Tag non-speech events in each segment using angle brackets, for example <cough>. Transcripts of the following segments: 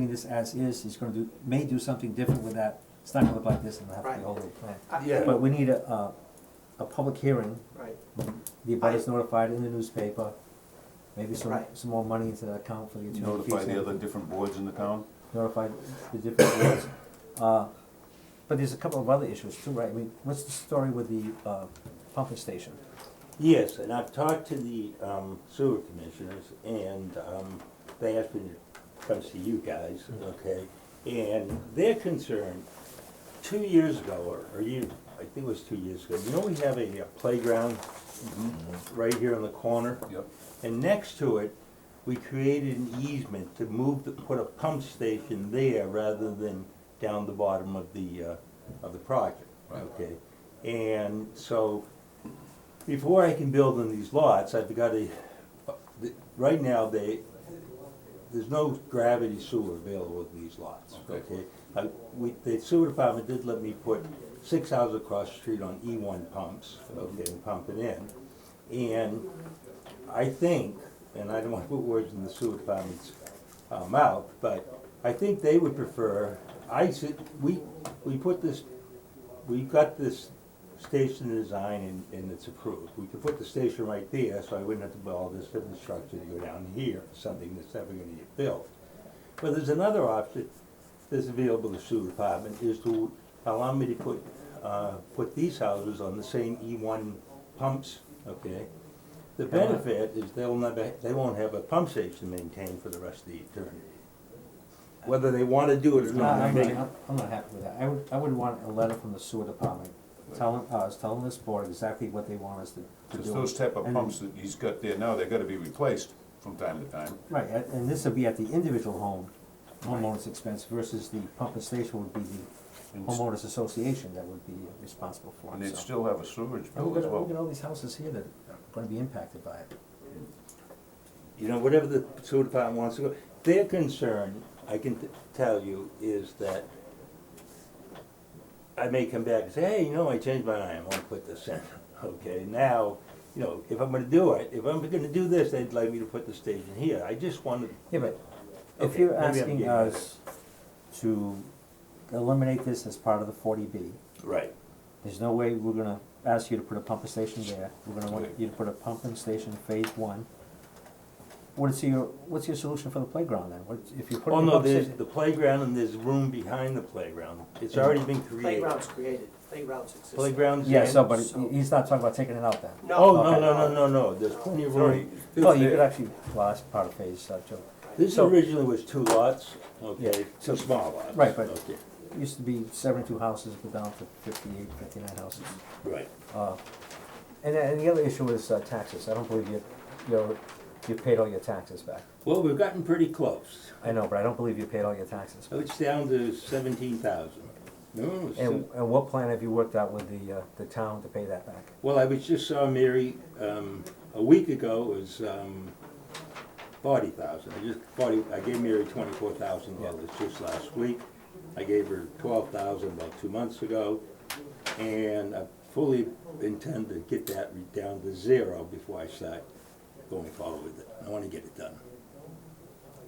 this as is, he's gonna do, may do something different with that, it's not gonna look like this and have to be Right. a whole new plan. I- Yeah. But we need a, a, a public hearing, Right, the abutters notified in the newspaper, maybe some, Right. some more money into that account for the attorney fees. Notify and- the other different boards in the town? Notify the different boards. Uh, But there's a couple of other issues too, right? I mean, what's the story with the, uh, pumping station? Yes, and I've talked to the um, sewer commissioners, and um, they asked me to come see you guys, Mm-hmm. okay? And their concern, two years ago, or- or you, I think it was two years ago, you know we have a uh, playground right here in the corner? Mm-hmm. Yep. And next to it, we created an easement to move, the put a pump station there rather than down the bottom of the, uh, of the project, Right. okay? And so, before I can build on these lots, I've gotta, right now, they, there's no gravity sewer available with these lots, Okay. okay? Uh, we, the sewer department did let me put six houses across the street on E one pumps, okay, and pump it in. And I think, and I don't wanna put words in the sewer department's uh, mouth, but I think they would prefer, I said, we, we put this, we got this station design and, and it's approved. We could put the station right there, so I wouldn't have to build all this different structure to go down here, something that's never gonna get built. But there's another option that's available to sewer department, is to allow me to put, uh, put these houses on the same E one pumps, okay? The benefit is they'll never, they won't have a pump station maintained for the rest of the eternity. Whether they wanna do it or No, not. Uh, I'm they- not, I'm not happy with that. I would, I would want a letter from the sewer department telling us, telling this board exactly what they want us to, to do. Because those type of And- pumps that he's got there now, they gotta be replaced from time to time. Right, a- and this would be at the individual home, homeowner's expense versus the pumping station would be the And s- homeowners association that would be responsible for And it, they'd so. still have a sewage And bill we've as got, we've got well. all these houses here that are gonna be impacted by it. you know, whatever the sewer department wants to go, their concern, I can t- tell you, is that I may come back and say, hey, you know, I changed my mind, I wanna put this in, <laughs> okay, now, you know, if I'm gonna do it, if I'm gonna do this, they'd like me to put the station here, I just wanted, Yeah, but if Okay, you're maybe I'm asking getting at it. us to eliminate this as part of the forty B, right, there's no way we're gonna ask you to put a pumping station there. We're gonna want Okay. you to put a pumping station in phase one. What is your, what's your solution for the playground then? What, if you put oh in a no, pumping there's station? the playground and there's room behind the playground, it's already been created. playgrounds created, playgrounds exist. Playground's in. Yeah, so, but so- he's not talking about taking it out then. Oh, Okay. no, no, no, no, no, there's plenty of room. Well, you could actually, well, that's part of phase, uh, Joe. This So- originally was two lots, Yeah. okay, two small lots. Right, but- okay, It Used to be seventy-two houses, but down to fifty-eight, fifty-nine houses. Right. Uh, And, and the other issue is uh, taxes. I don't believe you, you're, you paid all your taxes back. Well, we've gotten pretty close. I know, but I don't believe you paid all your taxes. So it's down to seventeen thousand. No, it's And, still- and what plan have you worked out with the, uh, the town to pay that back? well, I was just saw Mary, um, a week ago, it was, um, forty thousand. I just, forty, I gave Mary twenty-four thousand dollars just last week. I gave her twelve thousand about two months ago. And I fully intend to get that re- down to zero before I start going forward with it. I wanna get it done.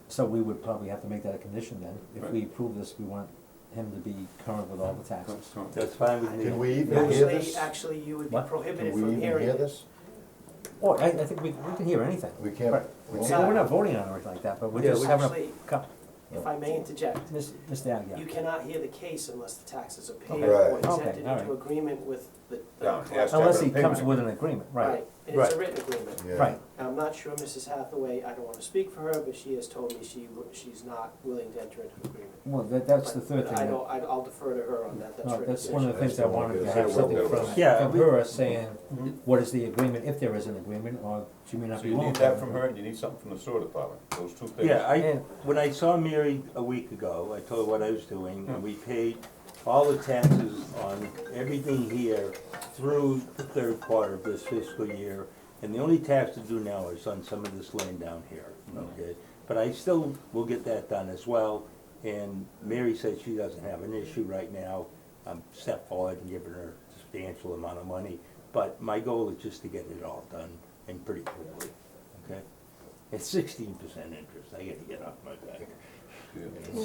So we would probably have to make that a condition then. If Right. we approve this, we want him to be current with all the taxes. That's fine with me. Can we even hear Actually, this? actually, you would be What? Can prohibited we from even hearing hear it. this? Or, I, I think we, we can hear anything. We can't. Right. we See, can't. we're not voting on it or anything like that, but we're Yeah, just we- having Actually, a, co- If I may interject, Miss- Mr. Agia. you cannot hear the case unless the taxes are paid Okay. Right. Oh, or it's Okay, entered all into right. agreement with the. the- Yeah, it has to Unless he have a comes payment. with an agreement, right, Right, and it's a Right. written agreement. Yeah. right. And I'm not sure Mrs. Hathaway, I don't wanna speak for her, but she has told me she, w- she's not willing to enter into agreement. Well, that, that's the But- third but thing. I that- don't, I- I'll defer to her on that, that's No, written. that's one of the That's things I the one wanted to that have said something we'll from, do. Yeah, from we- her saying, what is the agreement, if there is an agreement, or she may not So be you willing need to that have from an her, and you need something from the sewer department, those two things. Yeah, I, And- when I saw Mary a week ago, I told her what I was doing, and we paid all the taxes on everything here through the third quarter of this fiscal year, and the only tax to do now is on some of this land down here, okay? But I still will get that done as well, and Mary said she doesn't have an issue right now. I'm step forward and giving her a substantial amount of money, but my goal is just to get it all done and pretty quickly, okay? It's sixteen percent interest, I gotta get off my back. Yeah.